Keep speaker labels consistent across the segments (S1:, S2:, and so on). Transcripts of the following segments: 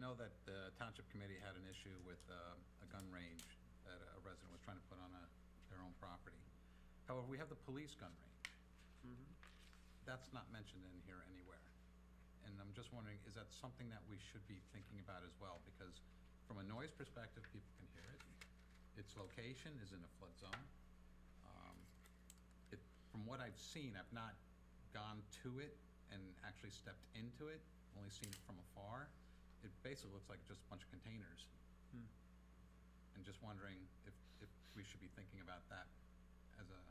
S1: know that the township committee had an issue with uh, a gun range that a resident was trying to put on a, their own property. However, we have the police gun range. That's not mentioned in here anywhere. And I'm just wondering, is that something that we should be thinking about as well? Because from a noise perspective, people can hear it. Its location is in a flood zone. Um, It, from what I've seen, I've not gone to it and actually stepped into it, only seen it from afar. It basically looks like just a bunch of containers.
S2: Hmm.
S1: And just wondering if, if we should be thinking about that as a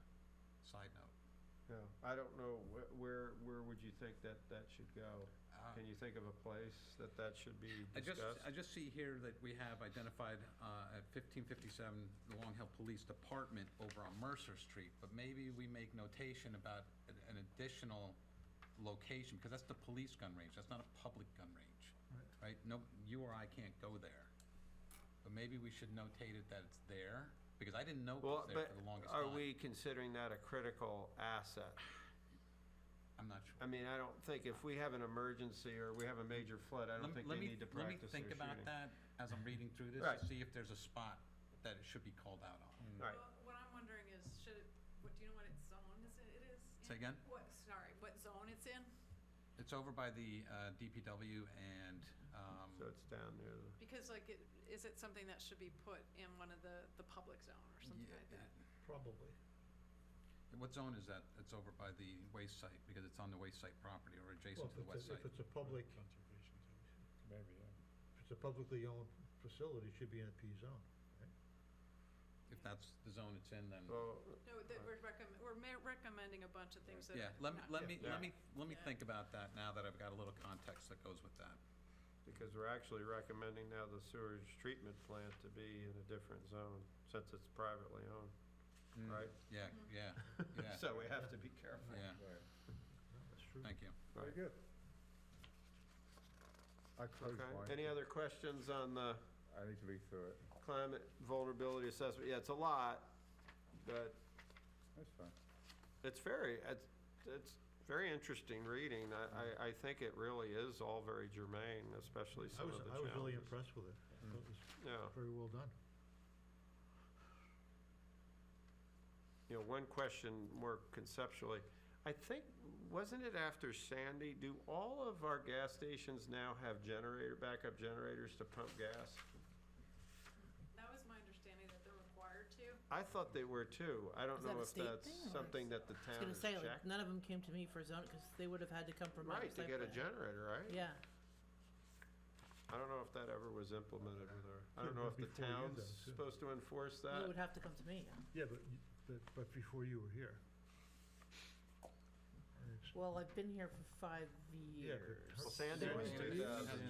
S1: side note.
S2: No, I don't know, wh- where, where would you think that that should go?
S1: Uh,
S2: Can you think of a place that that should be
S1: I just,
S2: discussed?
S1: I just see here that we have identified uh, at 1557, the Long Hill Police Department over on Mercer Street, but maybe we make notation about an- an additional location, because that's the police gun range, that's not a public gun range, right? No, you or I can't go there. But maybe we should notate it that it's there, because I didn't know it was
S2: Well,
S1: there
S2: but
S1: for the longest
S2: are
S1: time.
S2: we considering that a critical asset?
S1: I'm not sure.
S2: I mean, I don't think, if we have an emergency or we have a major flood, I don't
S1: Lem-
S2: think
S1: let me-
S2: they need to
S1: Let
S2: practice their
S1: me think about
S2: shooting.
S1: that as I'm reading through this,
S2: Right.
S1: to see if there's a spot that it should be called out on.
S2: Right,
S3: Well, What I'm wondering is, should it, what, do you know what its zone is, it it is? in?
S1: Say again?
S3: What, sorry, what zone it's in?
S1: It's over by the uh, DPW and, um,
S2: so it's down near the.
S3: Because like, it, is it something that should be put in one of the, the public zone or something
S1: yeah,
S3: like that?
S4: Probably.
S1: what zone is that? It's over by the waste site, because it's on the waste site property or
S4: Well,
S1: adjacent to
S4: if
S1: the
S4: it's
S1: west
S4: a-
S1: site.
S4: If it's a public,
S5: Conservation Commission. Maybe, yeah.
S4: if it's a publicly owned facility, it should be in a P zone.
S1: If that's the zone it's in, then,
S2: Well,
S3: No, that we're recommend, we're ma- recommending a bunch of things that.
S1: yeah,
S3: are
S1: let me,
S3: not
S1: let
S3: good.
S1: me,
S2: Yeah.
S1: let me, let me
S3: Yeah.
S1: think about that now that I've got a little context that goes with that.
S2: because we're actually recommending now the sewage treatment plant to be in a different zone, since it's privately owned, right?
S1: Yeah, yeah, Hmm. yeah,
S2: So we have to be careful.
S1: yeah,
S5: Right.
S4: No, That's true.
S1: thank you.
S2: Very
S5: good.
S6: I close mine.
S2: Okay, any other questions on the
S6: I need to read through it.
S2: climate vulnerability assessment? Yeah, it's a lot, but
S6: That's fine.
S2: It's very, it's, it's very interesting reading. I, I, I think it really is all very germane, especially
S4: I
S2: some of
S4: was,
S2: the challenges.
S4: I
S2: Oh.
S4: was really impressed with it. I thought It was
S2: Yeah.
S4: very well done.
S2: You know, one question more conceptually. I think, wasn't it after Sandy, do all of our gas stations now have generator, backup generators to pump gas?
S3: That was my understanding that they're required to.
S2: I thought they were too. I don't
S7: Is that
S2: know
S7: a
S2: if
S7: state
S2: that's
S7: thing or-
S2: something that the
S7: I was
S2: town
S7: gonna
S2: has
S7: say,
S2: checked.
S7: like, none of them came to me for zoning, because they would have had to come from my
S2: Right, to
S7: site
S2: get a
S7: plan.
S2: generator, right?
S7: Yeah,
S2: I don't know if that ever was implemented with our, I
S4: Could've
S2: don't know if
S4: been
S2: the
S4: before you
S2: town's
S4: though, too.
S2: supposed to enforce that.
S7: it would have to come to me.
S4: Yeah, but, you- but, but before you were here. And it's-
S7: Well, I've been here for five
S4: Yeah,
S7: years.
S4: but
S2: Well, Sandy
S4: Sandy
S2: was
S4: was
S2: two
S1: Generators, it has
S2: thousand and twelve.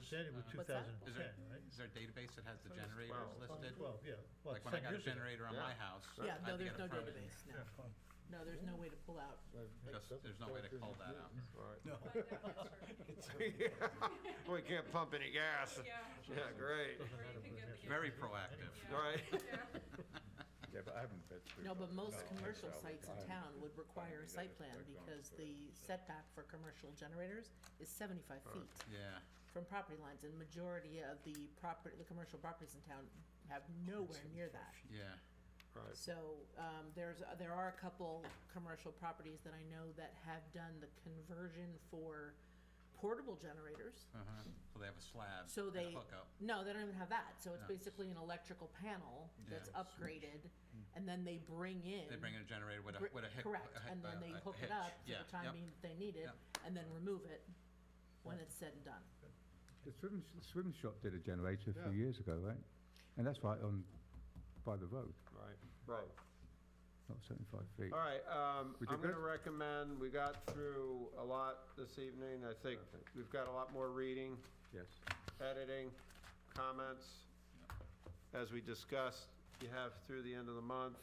S1: Generators.
S4: Sandy was
S1: uh,
S4: two
S7: What's that?
S4: thousand
S1: Is
S4: and
S1: there,
S4: ten, right?
S1: is there a database that has the generators
S2: twelve.
S1: listed?
S4: Twelve, yeah. Well,
S1: Like when I
S4: 10
S1: got a
S4: years ago.
S1: generator on my
S2: Yeah.
S1: house, I
S7: Yeah,
S1: had
S7: no,
S1: to
S7: there's
S1: get a
S7: no
S1: permit.
S7: database, no. No, there's no way to pull out.
S1: Just, there's no way to call that out.
S2: Right.
S3: Find out for sure.
S2: We can't pump any gas.
S3: uh, Yeah,
S2: Yeah, great.
S3: or you can get the.
S1: Very proactive.
S3: Yeah.
S2: All right.
S3: Yeah.
S6: Yeah, but I haven't been through.
S7: No, but most
S6: No, I
S7: commercial
S6: shall.
S7: sites in
S6: I-
S7: town would require a
S6: that
S7: site
S6: is
S7: plan,
S6: quite gone
S7: because
S6: for it.
S7: the setback for commercial generators is seventy-five feet
S1: Yeah.
S7: from property lines, and majority of the property, the commercial properties in town have nowhere near that.
S1: Yeah,
S2: Right.
S7: So, um, there's, there are a couple commercial properties that I know that have done the conversion for portable generators.
S1: uh-huh, so they have a slab
S7: So
S1: and a
S7: they-
S1: hookup.
S7: No, they don't even have that, so it's
S1: No.
S7: basically an electrical panel that's
S1: Yeah. Hmm.
S7: upgraded, and then they bring in.
S1: They bring in a generator with a,
S7: gr-
S1: with a hic-
S7: Correct,
S1: a hi-
S7: and then
S1: a-
S7: they
S1: a
S7: hook it
S1: hitch.
S7: up for
S1: Yeah,
S7: the time
S1: yep.
S7: being that they need it,
S1: yep.
S7: and then remove it when it's said and done.
S6: The swim, sh- swim shop did a generator a
S2: Yeah.
S6: few years ago, right? And that's right on, by the road,
S2: Right. Right.
S6: not seventy-five feet.
S2: All right, um,
S6: We did
S2: I'm gonna
S6: good?
S2: recommend, we got through a lot this evening. I think
S6: Perfect.
S2: we've got a lot more reading,
S6: Yes.
S2: editing, comments. As we discussed, you have through the end of the month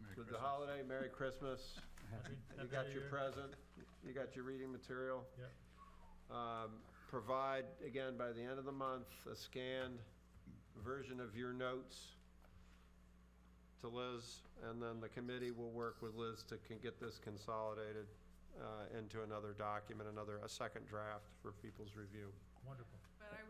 S1: Merry
S2: with the
S1: Christmas.
S2: holiday, Merry Christmas.
S4: Happy-
S2: You
S4: happy
S2: got
S4: New
S2: your
S4: Year.
S2: present, you got your reading material.
S4: Yep.
S2: um, provide, again, by the end of the month, a scanned version of your notes to Liz, and then the committee will work with Liz to can get this consolidated uh, into another document, another, a second draft for people's review.
S4: Wonderful.